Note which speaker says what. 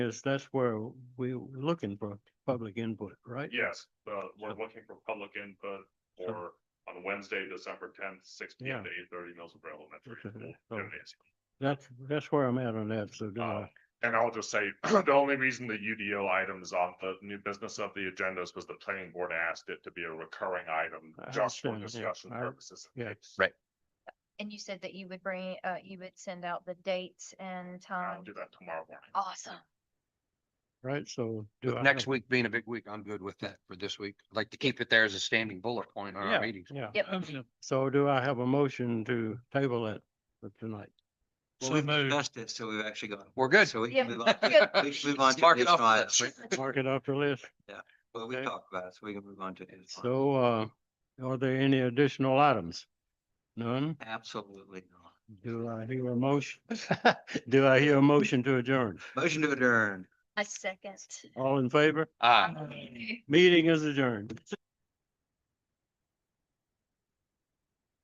Speaker 1: Because that's where we were looking for public input, right?
Speaker 2: Yes, uh, we're looking for public input or on Wednesday, December tenth, six P M to eight thirty, Millsboro Elementary.
Speaker 1: Okay, Oh. so-
Speaker 2: Gymnasium.
Speaker 1: That's, that's where I'm at on that, so do
Speaker 2: Uh,
Speaker 1: I.
Speaker 2: And I'll just say, the only reason the UDO item is on the new business of the agendas was the planning board asked it to be a recurring item
Speaker 1: I
Speaker 2: just for
Speaker 1: understand, yeah,
Speaker 2: discussion
Speaker 1: I-
Speaker 2: purposes.
Speaker 1: yeah,
Speaker 3: right.
Speaker 4: And you said that you would bring, uh, you would send out the dates and
Speaker 2: I'll
Speaker 4: time.
Speaker 2: do that tomorrow morning.
Speaker 4: Awesome.
Speaker 1: Right, so do I.
Speaker 3: With next week being a big week, I'm good with that for this week. I'd like to keep it there as a standing bullet point on
Speaker 1: Yeah.
Speaker 3: our meetings.
Speaker 1: Yeah.
Speaker 4: Yep.
Speaker 1: So do I have a motion to table it for tonight?
Speaker 5: Well,
Speaker 6: So
Speaker 5: we've
Speaker 6: moved.
Speaker 5: discussed it, so we've actually got.
Speaker 3: We're good.
Speaker 5: So we
Speaker 4: Yeah,
Speaker 5: can move on, to-
Speaker 4: good.
Speaker 5: we can move on to
Speaker 3: Mark it
Speaker 5: this
Speaker 3: off
Speaker 5: one.
Speaker 3: for that.
Speaker 1: Mark it off the list.
Speaker 5: Well, we
Speaker 1: okay.
Speaker 5: talked about it, so we can move on to this one.
Speaker 1: So, uh, are there any additional items? None?
Speaker 5: Absolutely not.
Speaker 1: Do I hear a motion? Do I hear a motion to adjourn?
Speaker 5: Motion to adjourn.
Speaker 4: A second.
Speaker 1: All in favor?
Speaker 3: Ah.
Speaker 4: Okay.
Speaker 1: Meeting is adjourned.